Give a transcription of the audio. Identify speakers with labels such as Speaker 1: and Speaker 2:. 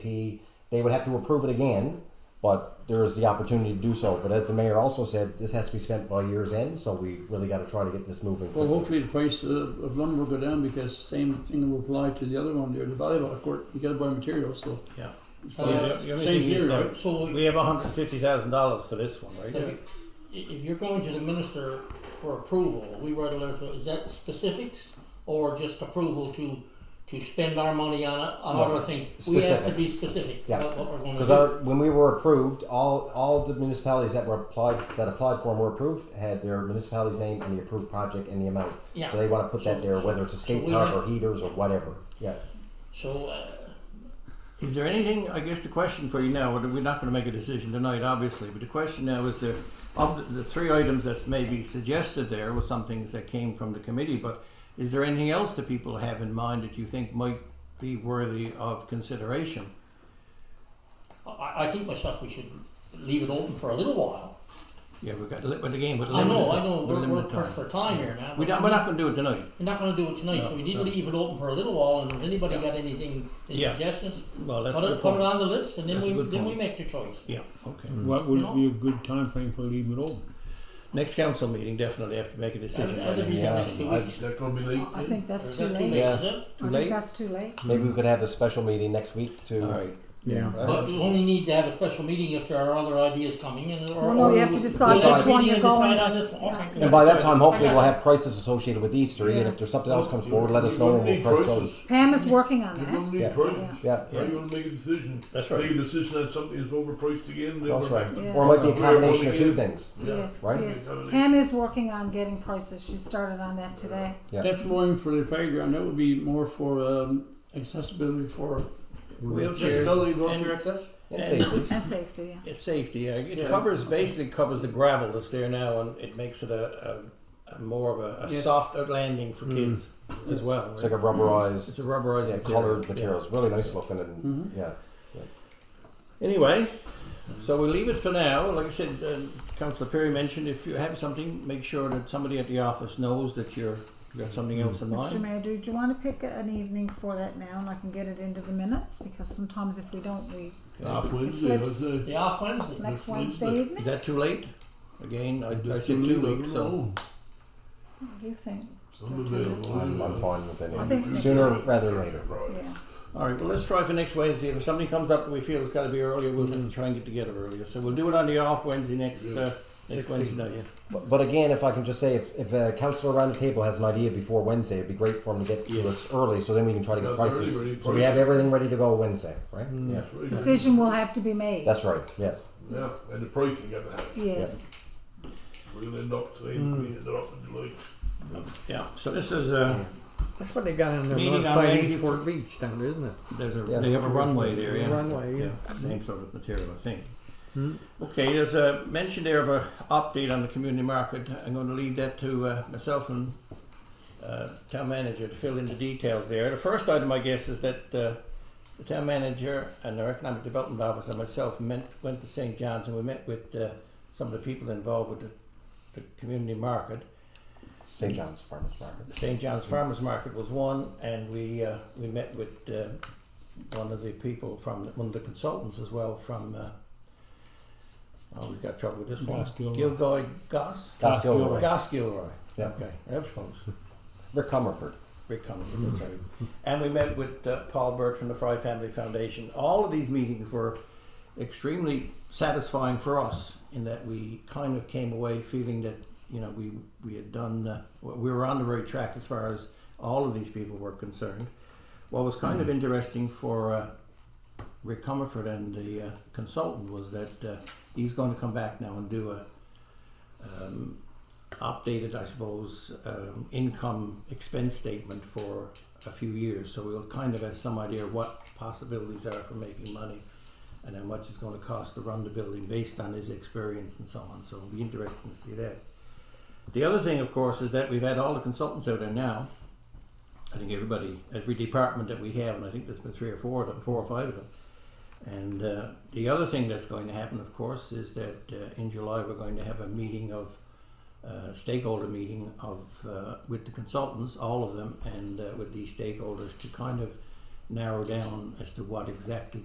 Speaker 1: P, they would have to approve it again, but there is the opportunity to do so. But as the mayor also said, this has to be spent by year's end, so we really gotta try to get this moving.
Speaker 2: Well,
Speaker 1: quickly.
Speaker 2: hopefully the price of, of lumber will go down because same thing will apply to the other one there, the volleyball court, you gotta buy materials, so.
Speaker 3: Uh, Oh, Yeah.
Speaker 2: It's
Speaker 3: Well,
Speaker 2: probably-
Speaker 3: the- the only
Speaker 2: same
Speaker 3: thing is
Speaker 2: here,
Speaker 3: that
Speaker 2: right?
Speaker 4: So
Speaker 3: We have hundred fifty thousand dollars for this one,
Speaker 4: if,
Speaker 3: right?
Speaker 4: you- if you're going to the minister for approval, we write a letter, for- is that specifics or just approval to, to spend our money on a, on
Speaker 1: No,
Speaker 4: other thing? We have to be specific
Speaker 1: Yeah.
Speaker 4: about what we're gonna
Speaker 1: Because
Speaker 4: do.
Speaker 1: our, when we were approved, all, all the municipalities that were applied, that applied for and were approved had their municipality's name and the approved project and the amount.
Speaker 4: Yeah.
Speaker 1: So they wanna put that there,
Speaker 4: So-
Speaker 1: whether it's a
Speaker 4: so
Speaker 1: skate
Speaker 4: we
Speaker 1: park
Speaker 4: have-
Speaker 1: or heaters or whatever, yeah.
Speaker 4: So, uh,
Speaker 3: Is there anything, I guess the question for you now, we're not gonna make a decision tonight, obviously, but the question now is there, of the- the three items that's maybe suggested there were some things that came from the committee, but is there anything else that people have in mind that you think might be worthy of consideration?
Speaker 4: I, I think myself, we should leave it open for a little while.
Speaker 3: Yeah, we've got, li- but again, with
Speaker 4: I
Speaker 3: limited.
Speaker 4: know, I know,
Speaker 3: with
Speaker 4: we're, we're
Speaker 3: limited time.
Speaker 4: pressed for time here now.
Speaker 3: We
Speaker 4: but
Speaker 3: don't, we're not gonna do it tonight.
Speaker 4: We're not gonna do it tonight, so we need to
Speaker 3: No, no.
Speaker 4: leave it open for a little while, and if anybody got anything, any
Speaker 3: Yeah.
Speaker 4: suggestions,
Speaker 3: Well, that's a
Speaker 4: put
Speaker 3: good
Speaker 4: it, put it
Speaker 3: point. Mm.
Speaker 4: on the list, and then
Speaker 3: That's a
Speaker 4: we,
Speaker 3: good
Speaker 4: then we
Speaker 3: point.
Speaker 4: make the choice.
Speaker 3: Yeah, okay.
Speaker 5: What
Speaker 4: No.
Speaker 5: would be a good time frame for leaving it open?
Speaker 3: Next council meeting, definitely have to make a decision.
Speaker 4: That'd- that'd
Speaker 3: by
Speaker 4: be
Speaker 3: then.
Speaker 1: Yeah,
Speaker 4: next two
Speaker 1: I-
Speaker 4: weeks.
Speaker 6: That gonna be late.
Speaker 7: I think that's
Speaker 4: Is
Speaker 7: too
Speaker 4: that too
Speaker 7: late.
Speaker 4: late,
Speaker 1: Yeah.
Speaker 4: is it?
Speaker 3: Too
Speaker 7: I
Speaker 3: late?
Speaker 7: think that's too late.
Speaker 1: Maybe we could have a special meeting next week to.
Speaker 3: All right.
Speaker 5: Yeah.
Speaker 3: Right.
Speaker 4: But you only need to have a special meeting if there are other ideas coming and or.
Speaker 7: Well, no, you have to decide
Speaker 4: Special
Speaker 1: which
Speaker 7: one
Speaker 4: meeting
Speaker 7: you're
Speaker 4: and
Speaker 7: going
Speaker 4: decide
Speaker 7: to.
Speaker 4: on this one. Okay,
Speaker 1: And by that
Speaker 4: good.
Speaker 1: time, hopefully,
Speaker 4: I
Speaker 1: we'll
Speaker 4: got
Speaker 1: have prices associated with these three, and if there's something else comes forward, let us know and we'll
Speaker 6: You're
Speaker 1: price
Speaker 6: gonna need
Speaker 1: those.
Speaker 6: choices.
Speaker 7: Pam is working on
Speaker 6: You're gonna
Speaker 7: that.
Speaker 6: need
Speaker 1: Yeah.
Speaker 6: choices.
Speaker 1: Yeah,
Speaker 6: Now you're gonna make a decision.
Speaker 3: That's
Speaker 6: Make
Speaker 3: right.
Speaker 6: a decision that something is overpriced again, then
Speaker 1: that's
Speaker 6: we're
Speaker 1: right.
Speaker 6: back.
Speaker 7: Yeah.
Speaker 1: Or it might be a
Speaker 6: Yeah.
Speaker 1: combination of two things.
Speaker 7: Yes,
Speaker 1: Right?
Speaker 7: yes. Pam is working on getting prices. She started on that today.
Speaker 1: Yeah.
Speaker 2: That's one for the playground, that would be more for, um, accessibility for disability wheelchair access.
Speaker 1: And safety.
Speaker 7: And safety, yeah.
Speaker 3: It's safety. Yeah. It
Speaker 2: Yeah.
Speaker 3: covers basically covers the gravel that's there now, and it makes it a, a, a more of a, a
Speaker 2: Yes. Mm.
Speaker 3: soft landing for kids as
Speaker 2: Yes.
Speaker 3: well.
Speaker 1: It's like
Speaker 3: right?
Speaker 1: a
Speaker 3: It's
Speaker 1: rubberized,
Speaker 3: a rubberized
Speaker 1: yeah,
Speaker 3: material.
Speaker 1: colored
Speaker 3: Yeah.
Speaker 1: material. It's really nice looking and,
Speaker 2: Mhm.
Speaker 1: yeah.
Speaker 3: Anyway, so we'll leave it for now. Like I said, um, Councillor Perry mentioned if you have something, make sure that somebody at the office knows that you're you got something else in
Speaker 7: Mr.
Speaker 3: mind.
Speaker 7: Mayor, do you want to pick an evening for that now and I can get it into the minutes? Because sometimes if we don't, we,
Speaker 6: Off Wednesday,
Speaker 7: slips.
Speaker 6: that's it.
Speaker 4: it. Yeah, off Wednesday.
Speaker 7: next
Speaker 6: Next
Speaker 7: Wednesday
Speaker 6: Wednesday.
Speaker 3: Is
Speaker 7: evening?
Speaker 3: that too late? Again, I, I
Speaker 6: That's
Speaker 3: said
Speaker 6: a
Speaker 3: two
Speaker 6: little-
Speaker 3: weeks. So
Speaker 7: What do you think?
Speaker 6: Some available.
Speaker 1: I'm, I'm fine with
Speaker 7: I think
Speaker 1: it.
Speaker 7: next
Speaker 1: Sooner
Speaker 6: week.
Speaker 1: rather than later.
Speaker 7: Yeah.
Speaker 3: all right. Well, let's try for next Wednesday. If something comes up that we feel it's got to be earlier, we'll try and get together earlier. So we'll do it on the off Wednesday next
Speaker 6: Yeah.
Speaker 3: uh, next Wednesday night. Yeah.
Speaker 1: But, but again, if I can just say, if, if a counselor around the table has an idea before Wednesday, it'd be great for him to get to
Speaker 3: Yeah.
Speaker 1: us early, so then we can try to
Speaker 6: Yeah,
Speaker 1: get
Speaker 6: they're
Speaker 1: prices.
Speaker 6: already
Speaker 1: So we have
Speaker 6: priced.
Speaker 1: everything ready to go Wednesday, right? Yeah.
Speaker 6: That's right.
Speaker 7: Decision will have to be made.
Speaker 1: That's right, yeah.
Speaker 6: Yeah, and the pricing got to happen.
Speaker 7: Yes.
Speaker 6: We'll end up saying, we ended up in July.
Speaker 3: Yeah, so this is a,
Speaker 8: That's what they got on their
Speaker 3: Meeting
Speaker 8: north
Speaker 3: on
Speaker 8: side
Speaker 3: Wednesday.
Speaker 8: Eastport Beach down there, isn't it?
Speaker 3: there's a,
Speaker 1: Yeah.
Speaker 3: they have a runway there, yeah.
Speaker 8: Runway, yeah.
Speaker 3: Same sort of material, I think.
Speaker 8: Hmm.
Speaker 3: Okay, there's a mention there of a update on the community market. I'm going to leave that to uh, myself and uh, town manager to fill in the details there. The first item, I guess, is that uh, the town manager and our economic development officer and myself met, went to St. John's and we met with uh, some of the people involved with the, the community market.
Speaker 1: St. John's Farmers Market.
Speaker 3: The St. John's Farmers Market was one, and we, uh, we met with, uh, one of the people from, one of the consultants as well from, uh, oh, we've got trouble with this one.
Speaker 5: Gus Gilroy.
Speaker 3: Gilroy, Goss?
Speaker 1: Gus Gilroy.
Speaker 3: Goss Gilroy,
Speaker 1: Yeah.
Speaker 3: okay, that was close.
Speaker 1: Rick Comerford.
Speaker 3: Rick Cummings, that's right. And we met with uh, Paul Burt from the Fry Family Foundation. All of these meetings were extremely satisfying for us in that we kind of came away feeling that you know we we had done uh, we were on the right track as far as all of these people were concerned. What was kind of interesting for uh, Rick Comerford and the uh, consultant was that uh, he's going to come back now and do a um, updated, I suppose, um, income expense statement for a few years. So we'll kind of have some idea what possibilities are for making money and how much it's going to cost to run the building based on his experience and so on. So it'll be interesting to see that. The other thing, of course, is that we've had all the consultants out there now. I think everybody, every department that we have, and I think there's been three or four of them, four or five of them. And uh, the other thing that's going to happen, of course, is that uh, in July we're going to have a meeting of uh, stakeholder meeting of uh, with the consultants, all of them, and uh, with these stakeholders to kind of narrow down as to what exactly